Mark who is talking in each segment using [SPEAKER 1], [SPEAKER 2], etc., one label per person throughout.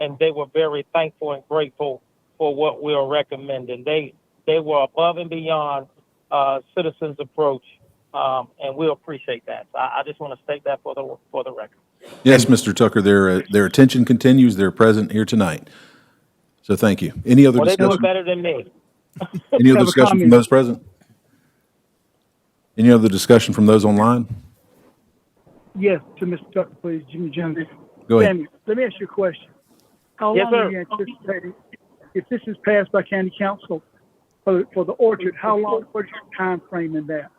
[SPEAKER 1] and they were very thankful and grateful for what we were recommending. They they were above and beyond uh, citizens' approach, um, and we appreciate that. So I, I just want to state that for the for the record.
[SPEAKER 2] Yes, Mr. Tucker, their, uh, their attention continues. They're present here tonight. So thank you. Any other
[SPEAKER 1] Well, they do it
[SPEAKER 2] discussion?
[SPEAKER 1] better than me.
[SPEAKER 2] Any other
[SPEAKER 3] Have a
[SPEAKER 2] discussion from
[SPEAKER 3] comment.
[SPEAKER 2] those present? Any other discussion from those online?
[SPEAKER 3] Yes, to Mr. Tucker, please, Jimmy Jones.
[SPEAKER 2] Go ahead.
[SPEAKER 3] Samuel, let me ask you a question. How
[SPEAKER 1] Yes,
[SPEAKER 3] long are
[SPEAKER 1] sir.
[SPEAKER 3] you anticipating, if this is passed by county council for, for the orchard, how long, what's your time frame in that?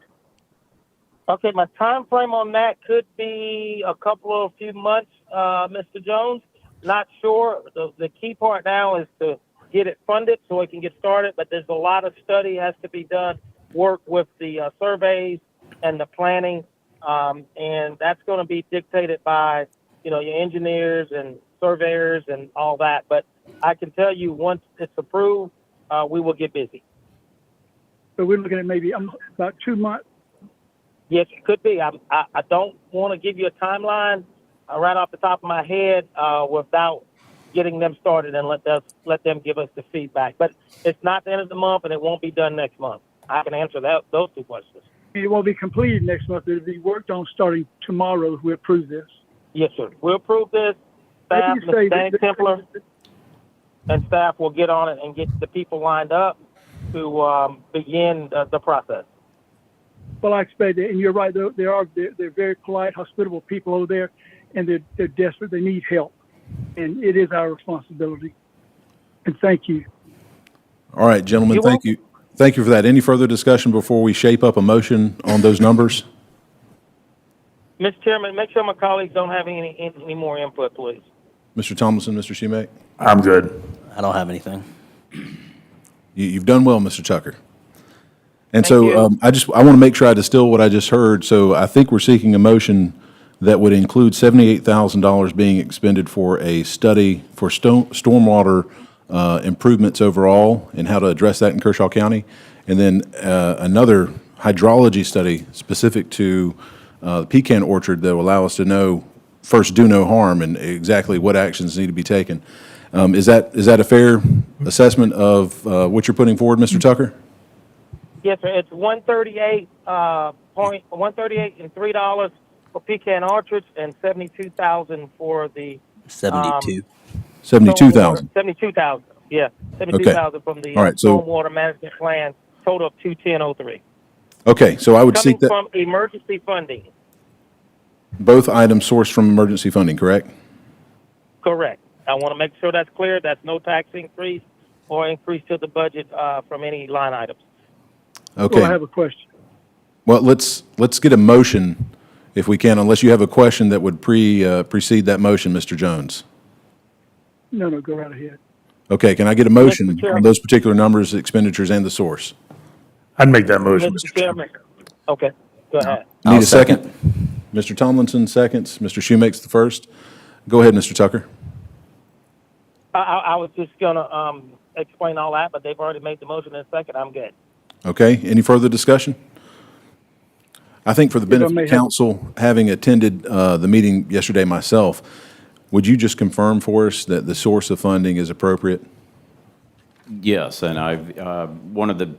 [SPEAKER 1] Okay, my time frame on that could be a couple of few months, uh, Mr. Jones. Not sure. The, the key part now is to get it funded so it can get started. But there's a lot of study has to be done, work with the uh, surveys and the planning, um, and that's going to be dictated by you know your engineers and surveyors and all that. But I can tell you once it's approved, uh, we will get busy.
[SPEAKER 3] So we're looking at maybe, um, about two months,
[SPEAKER 1] Yes, it could be. I, I, I don't want to give you a timeline uh, right off the top of my head uh, without getting them started and let us let them give us the feedback. But it's not the end of the month, and it won't be done next month. I can answer that those two questions.
[SPEAKER 3] it won't be completed next month, it'll be worked on starting tomorrow if we approve this.
[SPEAKER 1] Yes, sir. We'll approve this.
[SPEAKER 3] What
[SPEAKER 1] Staff,
[SPEAKER 3] do you
[SPEAKER 1] Mr.
[SPEAKER 3] say
[SPEAKER 1] Dan
[SPEAKER 3] that-
[SPEAKER 1] Uh, Templer, and staff will get on it and get the people lined up to um, begin the, the process.
[SPEAKER 3] Well, I expect it, and you're right, though, they are, they're, they're very polite, hospitable people over there, and they're, they're desperate, they need help. And it is our responsibility. And thank you.
[SPEAKER 2] All right, gentlemen,
[SPEAKER 1] You're
[SPEAKER 2] thank you. Thank you for that. Any further discussion before we shape up a motion on those numbers?
[SPEAKER 1] Mr. Chairman, make sure my colleagues don't have any any, any more input, please.
[SPEAKER 2] Mr. Tomlinson, Mr. Schumake?
[SPEAKER 4] I'm good.
[SPEAKER 5] I don't have anything.
[SPEAKER 2] You, you've done well, Mr. Tucker. And
[SPEAKER 1] Thank you.
[SPEAKER 2] so um, I just, I want to make sure I distill what I just heard. So I think we're seeking a motion that would include $78,000 being expended for a study for sto- stormwater uh, improvements overall and how to address that in Kershaw County. And then uh, another hydrology study specific to uh, the pecan orchard that will allow us to know, first, do no harm and exactly what actions need to be taken. Um, Is that, is that a fair assessment of uh, what you're putting forward, Mr. Tucker?
[SPEAKER 1] Yes, sir. It's one thirty-eight uh, point one thirty-eight and three dollars for pecan orchards and seventy-two thousand for the
[SPEAKER 5] 72.
[SPEAKER 2] 72,000.
[SPEAKER 1] Seventy-two thousand. Yeah, seventy-two thousand from the uh,
[SPEAKER 2] All right, so-
[SPEAKER 1] stormwater management plan. Total of two ten oh three
[SPEAKER 2] Okay, so I would
[SPEAKER 1] coming
[SPEAKER 2] seek that,
[SPEAKER 1] from emergency funding.
[SPEAKER 2] both items sourced from emergency funding, correct?
[SPEAKER 1] Correct. I want to make sure that's clear. That's no tax increase or increase to the budget uh, from any line items.
[SPEAKER 3] Well, I
[SPEAKER 2] Okay,
[SPEAKER 3] have a question.
[SPEAKER 2] well, let's, let's get a motion if we can, unless you have a question that would pre, uh, precede that motion, Mr. Jones.
[SPEAKER 3] No, no, go right ahead.
[SPEAKER 2] Okay, can I get a motion
[SPEAKER 1] Chair.
[SPEAKER 2] on those particular numbers, expenditures, and the source?
[SPEAKER 4] I'd make that motion,
[SPEAKER 1] Mr. Chairman. Okay. Go ahead.
[SPEAKER 2] Need
[SPEAKER 5] I'll
[SPEAKER 2] a second? Mr. Tomlinson seconds, Mr. Shumake's the first. Go ahead, Mr. Tucker.
[SPEAKER 1] I, I, I was just gonna um, explain all that, but they've already made the motion in a second. I'm good.
[SPEAKER 2] Okay, any further discussion? I think for the
[SPEAKER 3] I
[SPEAKER 2] benefit
[SPEAKER 3] may
[SPEAKER 2] of
[SPEAKER 3] have-
[SPEAKER 2] council, having attended uh, the meeting yesterday myself, would you just confirm for us that the source of funding is appropriate?
[SPEAKER 6] Yes, and I've, uh, one of the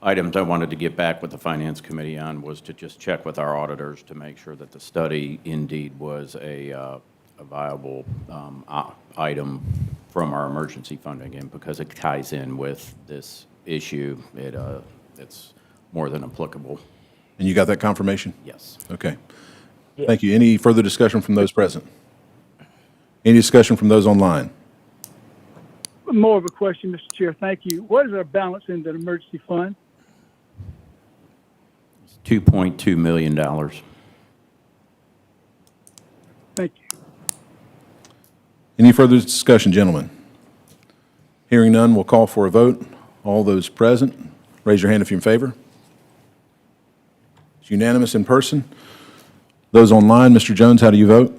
[SPEAKER 6] items I wanted to get back with the Finance Committee on was to just check with our auditors to make sure that the study indeed was a uh, a viable um, o- item from our emergency funding, and because it ties in with this issue, it, uh, it's more than applicable,
[SPEAKER 2] And you got that confirmation?
[SPEAKER 6] yes.
[SPEAKER 2] Okay. Thank you. Any further discussion from those present? Any discussion from those online?
[SPEAKER 3] More of a question, Mr. Chair. Thank you. What is our balance in the emergency fund?
[SPEAKER 6] $2.2 million.
[SPEAKER 3] Thank you.
[SPEAKER 2] Any further discussion, gentlemen? Hearing none, we'll call for a vote. All those present, raise your hand if you're in favor. It's unanimous in person. Those online, Mr. Jones, how do you vote?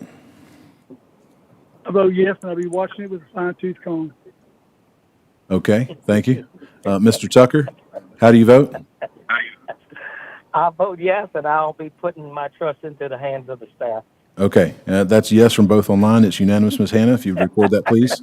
[SPEAKER 3] I vote yes, and I'll be watching it with a fine tooth comb.
[SPEAKER 2] Okay, thank you. Uh, Mr. Tucker, how do you vote?
[SPEAKER 1] I vote yes, and I'll be putting my trust into the hands of the staff.
[SPEAKER 2] Okay, uh, that's yes from both online. It's unanimous, Ms. Hannah, if you'd record that, please.